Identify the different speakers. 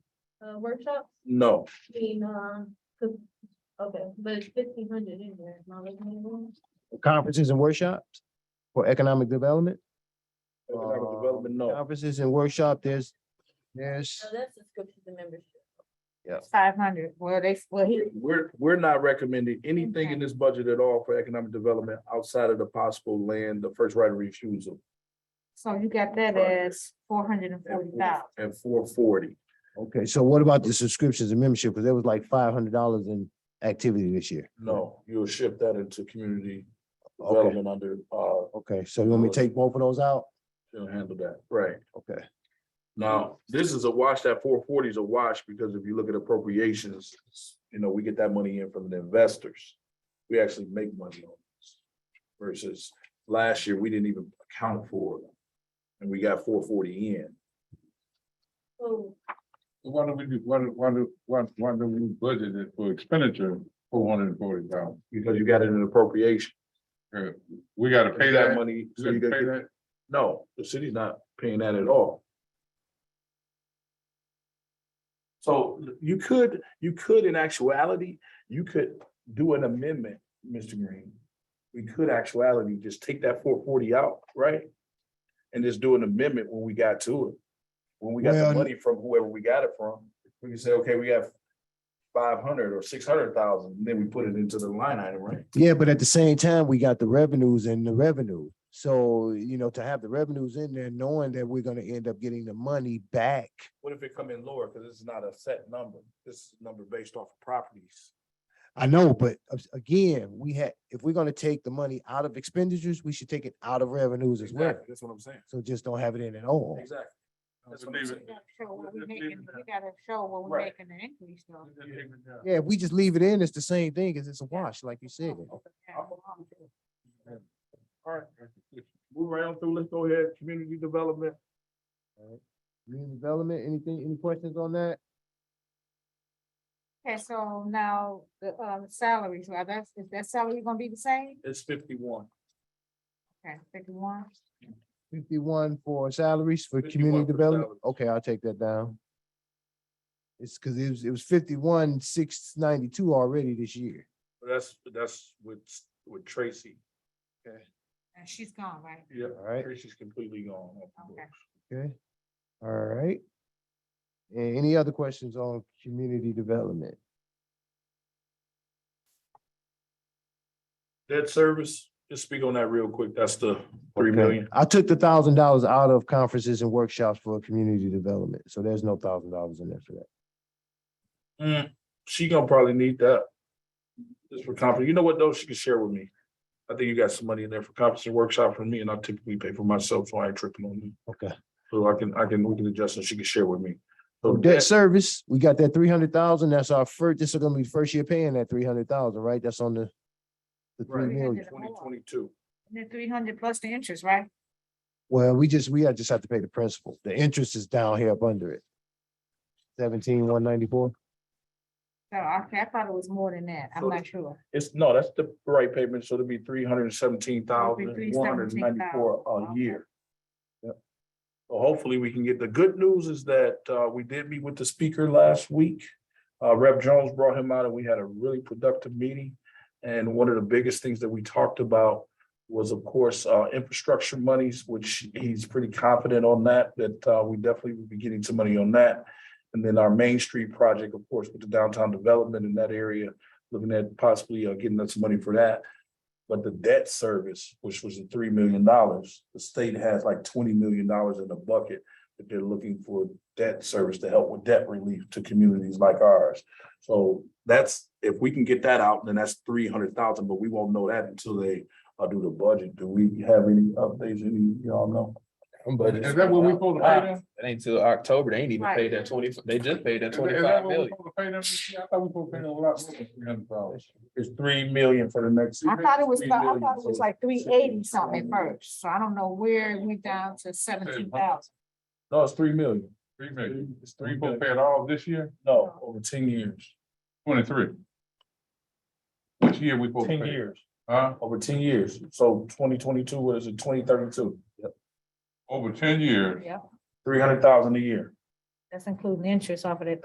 Speaker 1: uh, workshops
Speaker 2: No,
Speaker 1: being, um, 'cause- okay, but it's fifteen hundred in there, it's not like minimum.
Speaker 3: conferences and workshops for economic development.
Speaker 2: economic
Speaker 3: Uh,
Speaker 2: development, no.
Speaker 3: Conferences and workshop, there's, there's,
Speaker 1: So Oh, that's subscription to membership.
Speaker 4: Five hundred, well, they, well, he,
Speaker 2: We're, we're not recommending anything in this budget at all for economic development outside of the possible land, the first right of refusal.
Speaker 4: so you got that as four hundred and forty thousand.
Speaker 2: And four forty.
Speaker 3: okay, so what about the subscriptions and membership? Because there was like five hundred dollars in activity this year.
Speaker 2: No, you'll shift that into community
Speaker 3: Okay.
Speaker 2: development under, uh,
Speaker 3: Okay, so you want me to take both of those out?
Speaker 2: you'll handle that, right?
Speaker 3: Okay,
Speaker 2: Now, this is a wash, that four forty is a wash, because if you look at appropriations, you know, we get that money in from the investors. We actually make money on this. Versus last year, we didn't even account for it. And we got four forty in.
Speaker 1: So,
Speaker 5: Why don't we do, why, do- why, do- why, why do we budget it for expenditure for one hundred and forty thousand?
Speaker 2: Because you got it in appropriation.
Speaker 5: We gotta
Speaker 2: You
Speaker 5: pay
Speaker 2: got
Speaker 5: that money.
Speaker 2: Money. so
Speaker 5: We
Speaker 2: you
Speaker 5: gotta
Speaker 2: gotta
Speaker 5: pay
Speaker 2: get-
Speaker 5: that.
Speaker 2: No, the city's not paying that at all. So you could, you could in actuality, you could do an amendment, Mr. Green. We could actuality just take that four forty out, right? And just do an amendment when we got to it. When we got
Speaker 3: Well-
Speaker 2: the money from whoever we got it from, we can say, okay, we have five hundred or six hundred thousand, and then we put it into the line item, right?
Speaker 3: yeah, but at the same time, we got the revenues and the revenue. So, you know, to have the revenues in there, knowing that we're gonna end up getting the money back.
Speaker 2: What if it come in lower? Because this is not a set number. This is a number based off of properties.
Speaker 3: I know, but as- again, we had, if we're gonna take the money out of expenditures, we should take it out of revenues as well.
Speaker 2: Exactly, that's what I'm saying.
Speaker 3: So just don't have it in at all.
Speaker 2: Exactly. That's what I'm
Speaker 5: Leave
Speaker 2: saying.
Speaker 5: it.
Speaker 4: Gotta show what we
Speaker 5: Just leave
Speaker 4: making,
Speaker 5: it.
Speaker 4: we gotta show what we're
Speaker 2: Right.
Speaker 4: making the increase though.
Speaker 3: Yeah, if we just leave it in, it's the same thing, because it's a wash, like you said.
Speaker 2: All right, move right on through. Let's go ahead, community development.
Speaker 3: Community development, anything, any questions on that?
Speaker 4: Okay, so now the um salaries, well, that's, is that salary gonna be the same?
Speaker 2: It's fifty-one.
Speaker 4: Okay, fifty-one,
Speaker 3: Fifty-one for salaries for
Speaker 2: 51
Speaker 3: community
Speaker 2: for
Speaker 3: development?
Speaker 2: salaries.
Speaker 3: Okay, I'll take that down. It's because it was, it was fifty-one, six ninety-two already this year.
Speaker 2: That's, that's with, with Tracy.
Speaker 4: and she's gone, right?
Speaker 2: Yeah.
Speaker 3: All right,
Speaker 2: Tracy's completely gone. off the
Speaker 4: Okay.
Speaker 2: books.
Speaker 3: okay, all right. And any other questions on community development?
Speaker 2: Debt service, just speak on that real quick. That's the three
Speaker 3: Okay.
Speaker 2: million.
Speaker 3: I took the thousand dollars out of conferences and workshops for community development, so there's no thousand dollars in there for that.
Speaker 2: Mm, She gonna probably need that. Just for conference. You know what though? She can share with me. I think you got some money in there for conference and workshop for me and I typically pay for myself, so I ain't tripping on you.
Speaker 3: Okay.
Speaker 2: So I can, I can, we can adjust and she can share with me. So
Speaker 3: Debt
Speaker 2: debt
Speaker 3: service, we got that three hundred thousand, that's our first, this is gonna be the first year paying that three hundred thousand, right? That's on the the three
Speaker 2: Right.
Speaker 3: million.
Speaker 2: twenty twenty-two.
Speaker 4: And then three hundred plus the interest, right?
Speaker 3: Well, we just, we just have to pay the principal. The interest is down here up under it. Seventeen, one ninety-four.
Speaker 4: So, okay, I thought it was more than that, I'm
Speaker 2: So-
Speaker 4: not sure.
Speaker 2: It's, no, that's the right payment, so it'll be three hundred and seventeen thousand, one hundred and ninety-four a
Speaker 4: 317,000.
Speaker 2: year. Yep. So hopefully we can get, the good news is that, uh, we did meet with the speaker last week. Uh, Rep. Jones brought him out and we had a really productive meeting. And one of the biggest things that we talked about was, of course, uh, infrastructure monies, which he's pretty confident on that, that, uh, we definitely will be getting some money on that. And then our Main Street project, of course, with the downtown development in that area, looking at possibly uh, getting us money for that. But the debt service, which was the three million dollars, the state has like twenty million dollars in the bucket that they're looking for debt service to help with debt relief to communities like ours. So that's, if we can get that out, then that's three hundred thousand, but we won't know that until they uh, do the budget. Do we have any updates, any, y'all know?
Speaker 5: Is that what we supposed to pay them?
Speaker 6: It ain't till October. They ain't even
Speaker 4: Right.
Speaker 6: paid that twenty, they just paid that
Speaker 5: Is that- is
Speaker 6: twenty-five
Speaker 5: that what we
Speaker 6: million.
Speaker 5: supposed to pay them? this year? I thought we supposed to pay them a lot more than three hundred thousand.
Speaker 2: It's three million for the next.
Speaker 4: I thought it was,
Speaker 2: Three
Speaker 4: about- I
Speaker 2: million,
Speaker 4: thought it was
Speaker 2: so-
Speaker 4: like three eighty something at first, so I don't know where it went down to seventeen thousand.
Speaker 2: No, it's three million.
Speaker 5: Three million.
Speaker 2: It's
Speaker 5: We
Speaker 2: three
Speaker 5: supposed
Speaker 2: million.
Speaker 5: to pay it all this year,
Speaker 2: No, over ten years,
Speaker 5: twenty-three. Which year we supposed to
Speaker 2: ten
Speaker 5: pay?
Speaker 2: years.
Speaker 5: Huh?
Speaker 2: over ten years. So twenty twenty-two, what is it, twenty thirty-two?
Speaker 5: Over ten years.
Speaker 4: Yeah,
Speaker 2: Three hundred thousand a year.
Speaker 4: that's including interest off of that